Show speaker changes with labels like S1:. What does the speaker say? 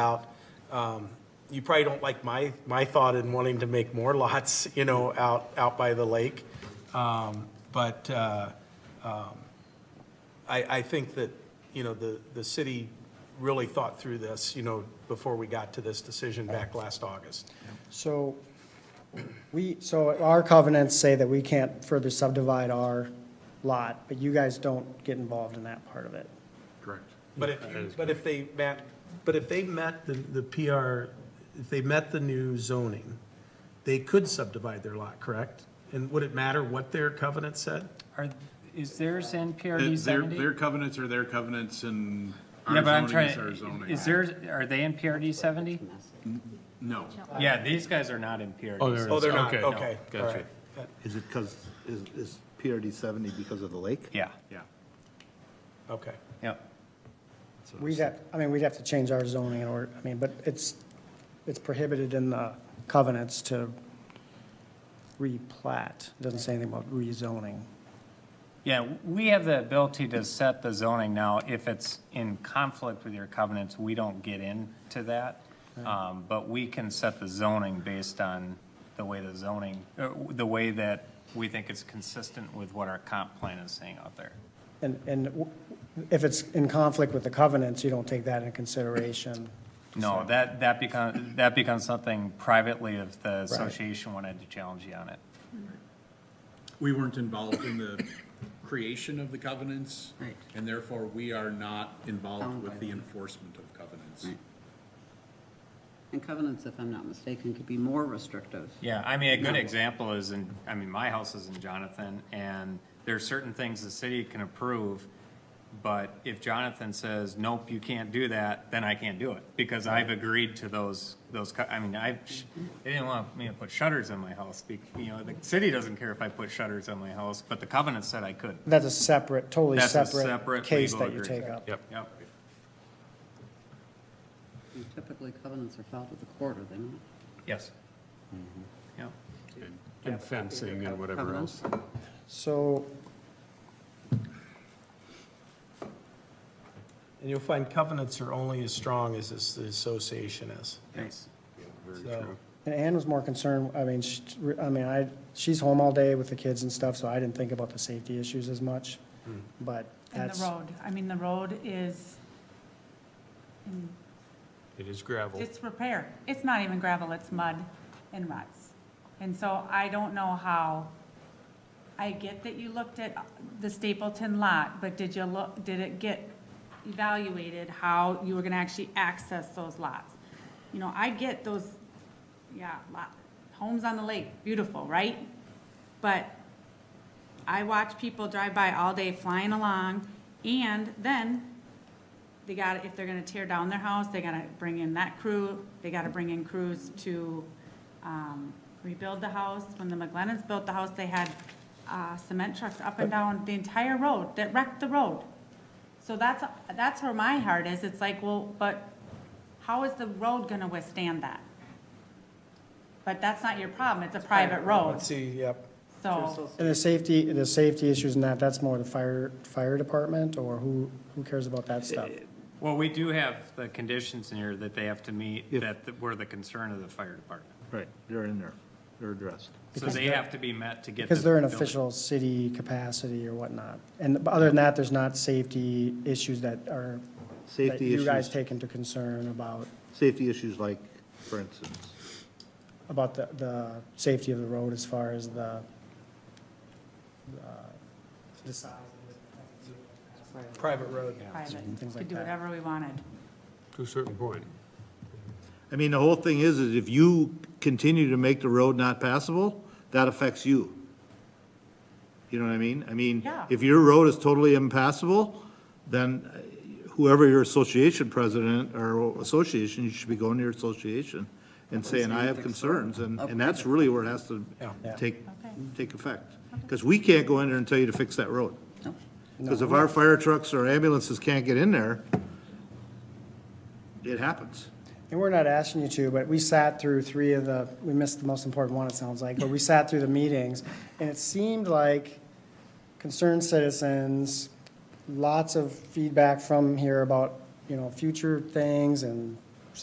S1: out. Um, You probably don't like my, my thought in wanting to make more lots, you know, out, out by the lake. Um, But uh, um, I, I think that, you know, the, the city really thought through this, you know, before we got to this decision back last August.
S2: So we, so our covenants say that we can't further subdivide our lot, but you guys don't get involved in that part of it.
S3: Correct.
S1: But if, you- but if they met, but if they met the, the PR, if they met the new zoning, they could subdivide their lot, correct? And would it matter what their covenant said?
S4: Are, is theirs in PRD
S3: Their,
S4: seventy?
S3: their covenants are their covenants and
S4: Yeah,
S3: our
S4: but I'm
S3: zoning is
S4: trying,
S3: our zoning.
S4: is theirs, are they in PRD seventy?
S3: No,
S4: Yeah, these guys are not in PRD.
S5: Oh, they're-
S4: 70.
S1: Oh, they're not,
S5: Okay.
S1: okay. all
S5: Gotcha.
S1: right.
S6: Is it because, is, is PRD seventy because of the lake?
S4: Yeah,
S3: yeah.
S1: Okay.
S4: yep.
S2: We'd have, I mean, we'd have to change our zoning in order, I mean, but it's, it's prohibited in the covenants to replat. It Doesn't say anything about rezoning.
S4: Yeah, we have the ability to set the zoning now. If it's in conflict with your covenants, we don't get into that. Um, But we can set the zoning based on the way the zoning, uh, the way that we think it's consistent with what our comp plan is saying out there.
S2: And, and w- if it's in conflict with the covenants, you don't take that into consideration.
S4: No, that, that becomes, that becomes something privately if the association wanted to challenge you on it.
S3: We weren't involved in the creation of the covenants. And therefore, we are not involved with the enforcement of covenants.
S7: Right. And covenants, if I'm not mistaken, could be more restrictive.
S4: Yeah, I mean, a good example is in, I mean, my house is in Jonathan, and there are certain things the city can approve, but if Jonathan says, nope, you can't do that, then I can't do it, because I've agreed to those, those, co- I mean, I, they didn't want me to put shutters on my house, be- you know, the city doesn't care if I put shutters on my house, but the covenant said I could.
S2: That's a separate, totally
S4: That's a
S2: separate
S4: separate
S2: case
S4: legal
S2: that you
S4: agreement.
S2: take up.
S5: Yep.
S4: Yep,
S7: And Typically, covenants are filed with the court, are they not?
S4: yes.
S2: Mm-hmm.
S4: Yep.
S5: And fencing and whatever else.
S7: Covenants?
S2: So
S1: And you'll find covenants are only as strong as this- the association is.
S4: Yes.
S1: So,
S2: And Ann was more concerned, I mean, she, I mean, I, she's home all day with the kids and stuff, so I didn't think about the safety issues as much.
S6: Hmm.
S2: But
S8: And the
S2: that's,
S8: road, I mean, the road is in
S5: It is gravel.
S8: disrepair. It's not even gravel, it's mud and ruts. And so I don't know how, I get that you looked at the Stapleton lot, but did you look, did it get evaluated how you were gonna actually access those lots? You know, I get those, yeah, lot, homes on the lake, beautiful, right? But I watch people drive by all day flying along, and then they got, if they're gonna tear down their house, they gotta bring in that crew, they gotta bring in crews to, um, rebuild the house. When the McLennans built the house, they had, uh, cement trucks up and down the entire road that wrecked the road. So that's, that's where my heart is, it's like, well, but how is the road gonna withstand that? But that's not your problem, it's a private road,
S1: Let's see, yep.
S8: so,
S2: and the safety, the safety issues and that, that's more the fire, fire department, or who, who cares about that stuff?
S4: Well, we do have the conditions in here that they have to meet, that th- were the concern of the fire department.
S6: Right, they're in there, they're addressed.
S4: So they have to be met to get.
S2: Because
S4: the
S2: they're in
S4: building.
S2: official city capacity or whatnot. And but other than that, there's not safety issues that are, that
S6: Safety
S2: you guys
S6: issues,
S2: take into concern about,
S6: safety issues like, for instance,
S2: about the, the safety of the road as far as the, uh, the size of it.
S1: Private road.
S8: private,
S2: Things like
S8: could do
S2: that.
S8: whatever we wanted.
S5: To a certain point.
S6: I mean, the whole thing is, is if you continue to make the road not passable, that affects you. You know what I mean? I mean,
S8: Yeah.
S6: if your road is totally impassable, then uh, whoever your association president or association, you should be going to your association and saying, I have concerns, and, and that's really where it has to
S2: Yeah.
S6: take,
S8: Okay.
S6: take effect. Because we can't go in there and tell you to fix that road.
S7: No.
S6: Because if our fire trucks or ambulances can't get in there, it happens.
S2: And we're not asking you to, but we sat through three of the, we missed the most important one, it sounds like, but we sat through the meetings, and it seemed like concerned citizens, lots of feedback from here about, you know, future things and